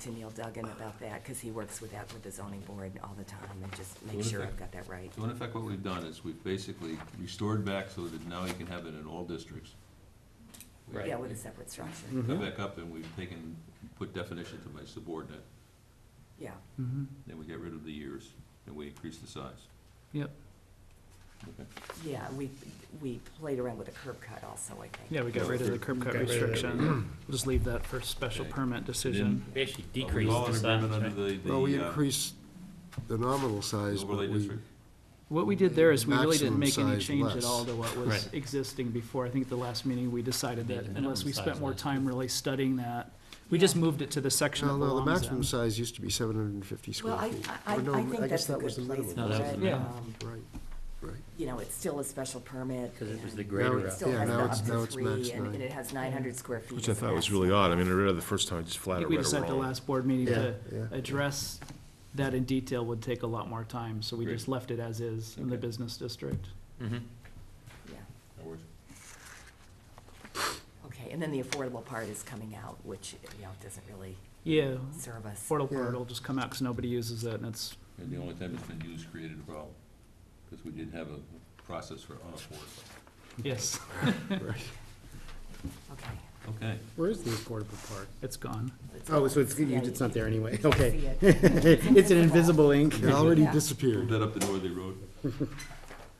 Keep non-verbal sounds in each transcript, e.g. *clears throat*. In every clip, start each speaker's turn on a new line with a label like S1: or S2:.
S1: to Neil Duggan about that, because he works with that, with the zoning board all the time, and just make
S2: What if
S1: sure
S2: I-
S1: I've got that right.
S2: So in effect, what we've done is we've basically restored back so that now you can have it in all districts. We-
S3: Right.
S1: Yeah, with a separate structure,
S3: Mhm.
S2: Come back up and we've taken, put definition to my subordinate,
S1: yeah.
S4: Mm-hmm.
S5: Mhm.
S2: then we get rid of the years, and we increase the size.
S5: Yep.
S2: Okay.
S1: Yeah, we, we played around with a curb cut also, I think.
S5: Yeah, we got rid of the curb cut
S3: Got rid of it.
S5: restriction. We'll just leave that for special
S2: Okay.
S5: permit decision.
S3: We actually
S2: Are we
S3: decreased
S2: all
S3: the
S2: in
S3: size,
S2: agreement
S3: right?
S2: under the,
S4: Well, we
S2: the, uh,
S4: increased the nominal size, but
S2: overlay
S4: we,
S2: district?
S5: What we did there is we really didn't
S4: Maximum
S5: make any
S4: size
S5: change at
S4: less.
S5: all to what was
S3: Right.
S5: existing before. I think at the last meeting, we decided
S3: Made
S5: that
S3: the
S5: unless we
S3: minimum size
S5: spent more
S3: less.
S5: time really studying that, we just moved it to the section
S4: no,
S5: that
S4: no, the
S5: belongs
S4: maximum
S5: in.
S4: size used to be seven hundred and fifty
S1: Well,
S4: square
S1: I,
S4: feet.
S1: I, I
S4: Or no,
S1: think
S4: guess
S1: that's a
S4: that was
S1: good
S4: the
S1: place
S4: minimum.
S3: No, that
S1: for
S3: was
S1: it.
S3: the
S5: minimum.
S1: Um,
S4: Right, right.
S1: You know, it's still a special permit.
S3: Because it was the
S1: and
S3: greater
S1: It
S3: up.
S1: still
S4: Yeah,
S1: has the
S4: now it's-
S1: up
S4: now
S1: to
S4: it's
S1: three,
S4: max
S1: and
S4: nine.
S1: and it has nine hundred square feet.
S6: Which I
S1: as a
S6: thought was
S1: maximum.
S6: really odd. I mean, I read it the first time, just
S5: I
S6: flat
S5: think
S6: out
S5: we
S6: read it
S5: decided at the
S6: wrong.
S5: last board meeting to
S4: Yeah, yeah.
S5: address that in detail would take a lot more time, so we
S2: Great.
S5: just left it as is in the
S2: Okay.
S5: business district.
S3: Mhm.
S1: Yeah,
S2: That works.
S1: okay, and then the affordable part is coming out, which, you know, doesn't really
S5: Yeah,
S1: serve us.
S5: portal
S4: Yeah.
S5: part will just come out because nobody uses it and it's,
S2: And the only time it's been used created a problem, because we didn't have a process for unaffordable.
S5: yes,
S1: Okay.
S2: Okay,
S7: Where is the affordable part?
S5: it's gone.
S1: let's
S7: Oh,
S1: go.
S7: so
S1: *laughs*
S7: it's,
S1: Yeah,
S7: you- it's not there anyway,
S1: you can
S7: okay.
S1: see it.
S7: *laughs* It's an invisible ink.
S4: It already
S1: Yeah.
S2: move
S4: disappeared.
S2: that up the northerly road.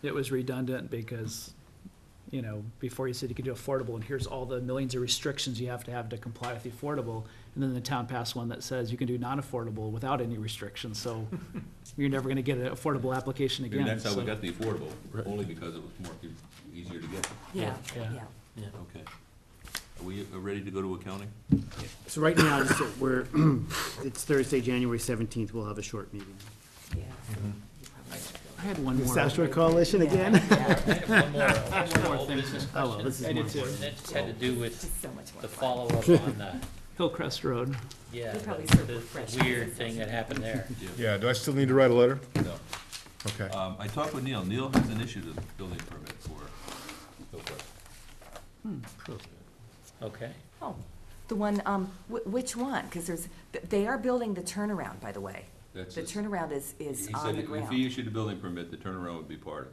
S5: It was redundant because, you know, before you said you could do affordable and here's all the millions of restrictions you have to have to comply with the affordable. And then the town passed one that says you can do non-affordable without any
S2: *laughs*
S5: restrictions, so you're never gonna get an affordable application again.
S2: And that's how we
S5: so-
S2: got the affordable, only because it was more, e, easier to get.
S1: Yeah,
S5: Yeah.
S1: yeah.
S3: Yeah.
S2: Okay. Are we uh, ready to go to accounting?
S7: So right now, so we're, *clears throat* it's Thursday, January seventeenth, we'll have a short meeting.
S1: Yeah. You probably should go.
S5: I had one
S7: The
S5: more.
S7: Southshore Coalition
S1: Yeah,
S7: again?
S1: yeah,
S3: I have one more, one more
S5: More
S3: old
S5: thing.
S3: business
S7: Oh, well,
S3: question.
S7: this is
S5: I
S7: more
S5: did too.
S7: important.
S3: That just had to do
S1: It's
S3: with
S1: just so much more
S3: the
S1: fun.
S3: follow-up on the,
S5: Hillcrest Road.
S3: yeah,
S1: They probably
S3: the-
S1: serve
S3: the
S1: refreshments.
S3: weird thing that happened there.
S6: Yeah, do I still need to write a letter?
S2: No.
S6: Okay.
S2: Um, I talked with Neil. Neil has an issue with building permit for Hillcrest.
S3: Okay.
S1: Oh, the one, um, wh- which one? Because there's, th- they are building the turnaround, by the way.
S2: That's
S1: The
S2: his-
S1: turnaround is,
S2: He
S1: is on
S2: said
S1: the
S2: if
S1: ground.
S2: he issued a building permit, the turnaround would be part of it.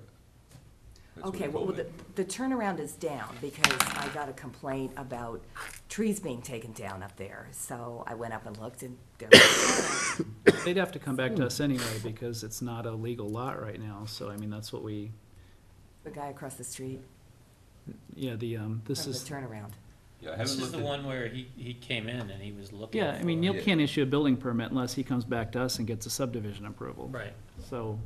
S2: That's what he
S1: Okay, well,
S2: told
S1: the,
S2: me.
S1: the turnaround is down because I got a complaint about trees being taken down up there. So I went up and looked and there was,
S5: They'd have to come back
S2: Hmm.
S5: to us anyway because it's not a legal lot right now, so I mean, that's what we,
S1: the guy across the street
S5: yeah, the, um,
S1: from
S5: this
S1: the
S5: is,
S1: turnaround.
S2: Yeah, I
S3: This
S2: haven't
S3: is
S2: looked
S3: the
S2: at,
S3: one where he, he came in and he was looking.
S5: yeah, I mean,
S3: for-
S5: Neil
S2: Yeah.
S5: can't issue a building permit unless he comes back to us and gets a subdivision approval.
S3: Right.
S5: So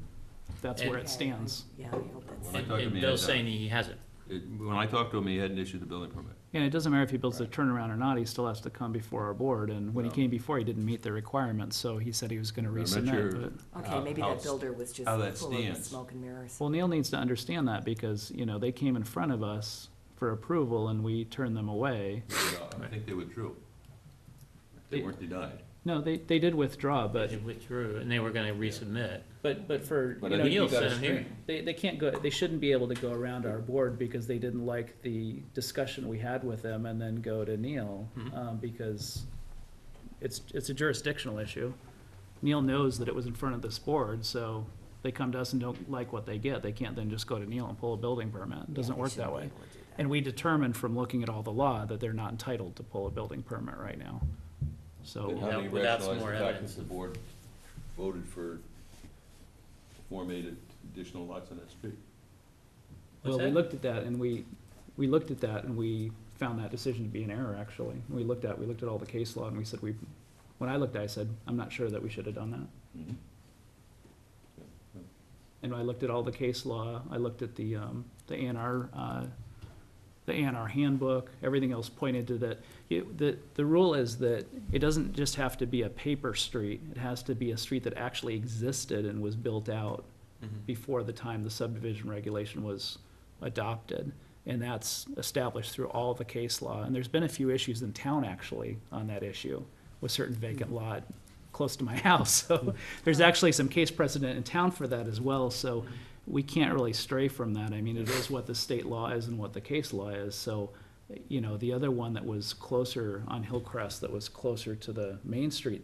S5: that's where it stands.
S1: Yeah, I hope that's,
S2: When I
S3: And
S2: talked to
S3: and
S2: him, he
S3: Bill's
S2: had, uh,
S3: saying he hasn't.
S2: it- when I talked to him, he hadn't issued the building permit.
S5: And it doesn't matter if he builds a turnaround or not, he still has to come before our board, and when he
S2: No.
S5: came before, he didn't meet the requirements, so he said he was gonna
S2: I'm not sure
S5: resubmit, but.
S1: okay,
S2: how-
S1: maybe
S2: how
S1: that
S2: it's-
S1: builder was just
S2: how that
S1: full of
S2: stands.
S1: smoke and mirrors.
S5: Well, Neil needs to understand that because, you know, they came in front of us for approval and we turned them away.
S2: you know, I think they withdrew. They
S5: Yeah.
S2: weren't denied.
S5: No, they, they did withdraw, but
S3: They withdrew and they were gonna resubmit.
S5: But, but for,
S2: But
S5: you
S2: I
S5: know,
S2: think
S3: Neil
S2: you got
S3: said
S2: it
S3: I'm here.
S2: straight.
S5: they, they can't go, they shouldn't be able to go around our board because they didn't like the discussion we had with them and then go to Neil,
S2: Hmm.
S3: Mhm.
S5: um, because it's, it's a jurisdictional issue. Neil knows that it was in front of this board, so they come to us and don't like what they get, they can't then just go to Neil and pull a building permit, it doesn't work that way. And we determined from looking at all the law that they're not entitled to pull a building permit right now,
S2: But
S5: so.
S2: how do you
S3: Without some
S2: rationalize
S3: more
S2: the fact
S3: evidence.
S2: that the board voted for formatted additional lots on that street?
S5: Well,
S3: What's
S5: we
S3: that?
S5: looked at that and we, we looked at that and we found that decision to be an error, actually. We looked at, we looked at all the case law and we said, we, when I looked, at it, I said, I'm not sure that we should have done that. And I looked at all the case law, I looked at the, um, the ANR uh, the ANR handbook, everything else pointed to that. It, the, the rule is that it doesn't just have to be a paper street, it has to be a street that actually existed and was built out
S3: Mhm.
S5: before the time the subdivision regulation was adopted. And that's established through all the case law. And there's been a few issues in town, actually, on that issue, with certain vacant lot close to my *laughs* house. So there's actually some case precedent in town for that as well. So we can't really stray from that. I mean, it is what the state law is and what the case law is. So, you know, the other one that was closer on Hillcrest, that was closer to the Main Street